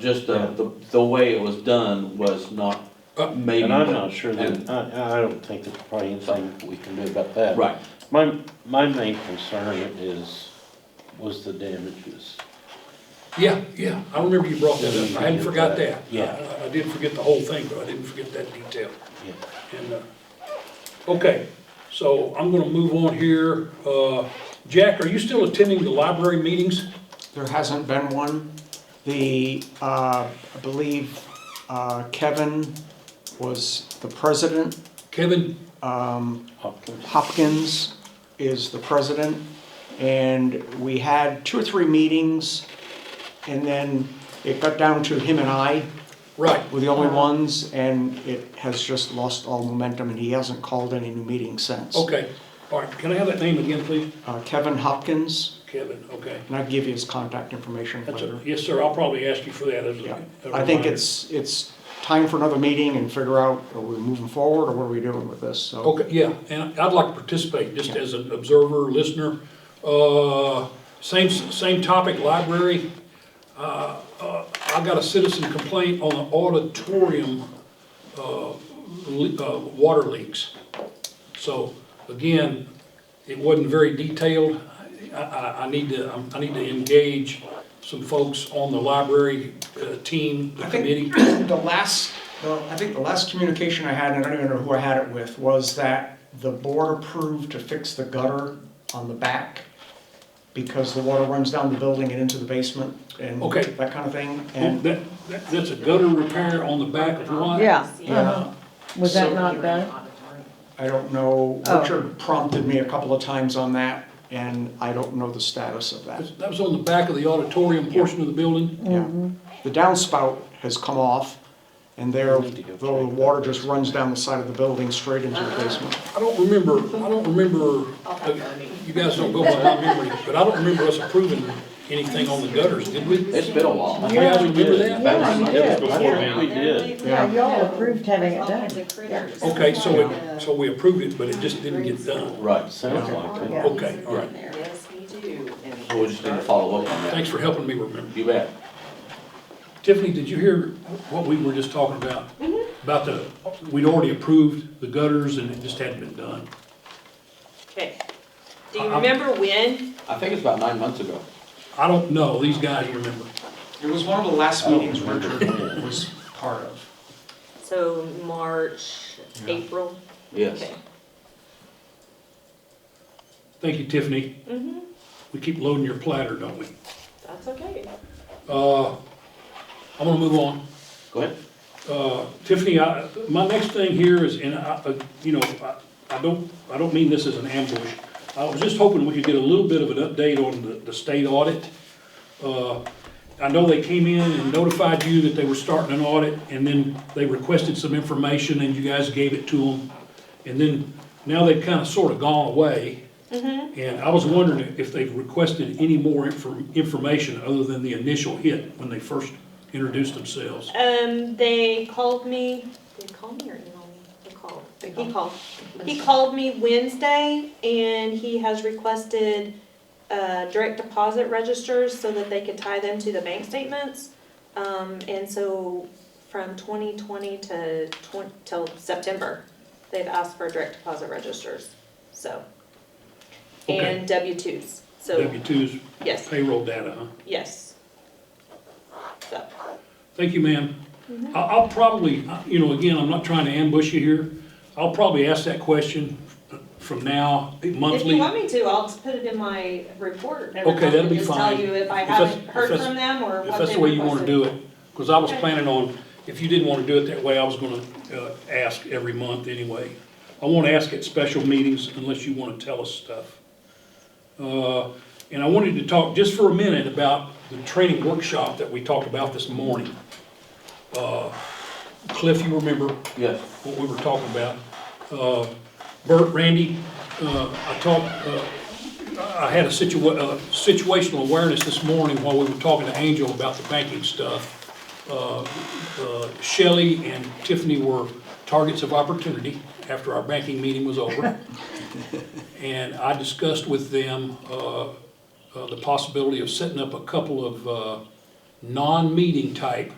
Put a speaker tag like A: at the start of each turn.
A: just the, the, the way it was done was not maybe.
B: And I'm not sure
A: and-
B: that, I, I don't think there's probably anything we can do about that.
A: Right,
B: My, my main concern is, was the damages.
C: Yeah, yeah, I remember you brought that up, I hadn't forgot that.
B: Yeah.
C: I- I did forget the whole thing, but I didn't forget that detail.
B: Yeah.
C: And, uh, okay, so I'm gonna move on here. Uh, Jack, are you still attending the library meetings?
D: There hasn't been one. The, uh, I believe uh, Kevin was the president,
C: Kevin,
B: Hopkins?
D: Hopkins is the president, and we had two or three meetings, and then it got down to him and I
C: right,
D: were the only
C: Uh-huh.
D: ones, and it has just lost all momentum, and he hasn't called any new meetings since.
C: okay. All right, can I have that name again, please?
D: Uh, Kevin Hopkins,
C: Kevin, okay.
D: and I can give you his contact information
C: That's
D: later.
C: a, yes, sir, I'll probably ask you for that as
D: Yeah,
C: a. a
D: I think
C: reminder.
D: it's, it's time for another meeting and figure out, are we moving forward or what are we doing with this? So
C: Okay, yeah, and I'd like to participate, just as an observer, listener. Uh, Same, same topic, library. Uh, uh, I got a citizen complaint on the auditorium uh, le- uh, water leaks. So again, it wasn't very detailed. I, I, I need to, I need to engage some folks on the library uh, team, the
D: I
C: committee.
D: think the last, the- I think the last communication I had, and I don't even know who I had it with, was that the board approved to fix the gutter on the back because the water runs down the building and into the basement and
C: Okay.
D: that kind of thing. And
C: That, that- that's a gutter repair on the back of the lot?
E: Yeah, Uh-huh.
D: Yeah.
E: was
D: So-
E: that not done?
D: I don't know,
E: Oh.
D: Richard prompted me a couple of times on that and I don't know the status of that.
C: That was on the back of the auditorium portion of the building?
D: Yeah, the downspout has come off, and there,
B: We need to go
D: the
B: check.
D: water just runs down the side of the building straight into the basement.
C: I don't remember, I don't remember, you guys don't go by my memory, but I don't remember us approving anything on the gutters, did we?
A: it's been a while.
C: You guys remember that?
E: Yeah, you
B: It
E: did.
B: was before me. We did.
E: Yeah, y'all approved having it done.
C: Okay, so it, so we approved it, but it just didn't get done.
A: Right,
B: Sounds like it.
E: Yeah.
C: Okay, all right.
F: Yes, we do.
A: so we just need to follow up on that.
C: Thanks for helping me remember.
A: You bet.
C: Tiffany, did you hear what we were just talking about? About the, we'd already approved the gutters and it just hadn't been done.
F: Okay. Do you remember when?
A: I think it's about nine months ago.
C: I don't know, these guys remember.
D: It was one of the last
B: I don't
D: meetings
B: remember.
D: Richard was part of.
F: So March, April?
A: Yes.
F: Okay.
C: Thank you, Tiffany.
F: Mm-hmm,
C: We keep loading your platter, don't we?
F: that's okay.
C: Uh, I'm gonna move on.
A: Go ahead.
C: Uh, Tiffany, I, my next thing here is, and I, uh, you know, I, I don't, I don't mean this as an ambush. I was just hoping we could get a little bit of an update on the, the state audit. Uh, I know they came in and notified you that they were starting an audit, and then they requested some information, and you guys gave it to them. And then, now they've kind of sort of gone away. And I was wondering if they've requested any more inform, information other than the initial hit when they first introduced themselves.
F: Um, they called me, did they call me or email me? They called. He called. He called me Wednesday and he has requested, uh, direct deposit registers so that they could tie them to the bank statements. Um, and so from twenty twenty to twen- till September, they've asked for direct deposit registers, so.
C: Okay.
F: And W twos, so,
C: W twos,
F: yes,
C: payroll data, huh?
F: yes. So,
C: Thank you, ma'am.
F: Mm-hmm.
C: I- I'll probably, you know, again, I'm not trying to ambush you here. I'll probably ask that question from now,
F: if you
C: monthly.
F: want me to, I'll just put it in my report. every
C: Okay,
F: month
C: that'll
F: and
C: be
F: just
C: fine.
F: Tell you if I
C: If that's-
F: haven't
C: if
F: heard
C: that's-
F: from them or
C: If
F: what
C: that's
F: they
C: the way you want to
F: requested.
C: do it. Because I was
F: Okay.
C: planning on, if you didn't want to do it that way, I was going to ask every month anyway. I won't ask at special meetings unless you want to tell us stuff. Uh, And I wanted to talk just for a minute about the training workshop that we talked about this morning. Uh, Cliff, you remember,
A: Yes.
C: what we were talking about. Uh, Bert, Randy, uh, I talked, uh, I had a situa, uh, situational awareness this morning while we were talking to Angel about the banking stuff. Uh, uh, Shelley and Tiffany were targets of opportunity after our banking meeting was over. And I discussed with them, uh, uh, the possibility of setting up a couple of, uh, non-meeting type